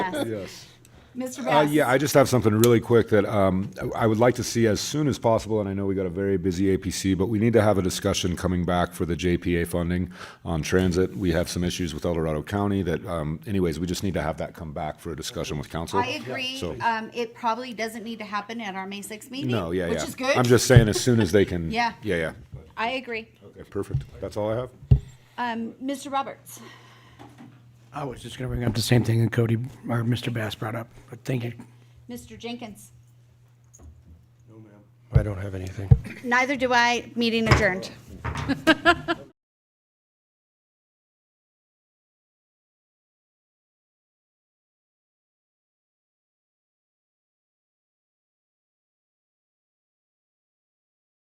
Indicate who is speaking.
Speaker 1: Yes.
Speaker 2: Yes.
Speaker 1: Mr.
Speaker 2: Uh,
Speaker 1: Bass?
Speaker 2: yeah, I just have something really quick that um, I would like to see as soon as possible, and I know we got a very busy APC, but we need to have a discussion coming back for the JPA funding on transit. We have some issues with El Dorado County that, um, anyways, we just need to have that come back for a discussion with council.
Speaker 1: I agree.
Speaker 2: So-
Speaker 1: Um, it probably doesn't need to happen at our May sixth meeting.
Speaker 2: No, yeah, yeah.
Speaker 1: Which is good.
Speaker 2: I'm just saying as soon as they can.
Speaker 1: Yeah.
Speaker 2: Yeah, yeah.
Speaker 1: I agree.
Speaker 2: Okay, perfect. That's all I have.
Speaker 1: Um, Mr. Roberts?
Speaker 3: I was just going to bring up the same thing that Cody, or Mr. Bass brought up, but thank you.
Speaker 1: Mr. Jenkins?
Speaker 4: I don't have anything.
Speaker 1: Neither do I. Meeting adjourned.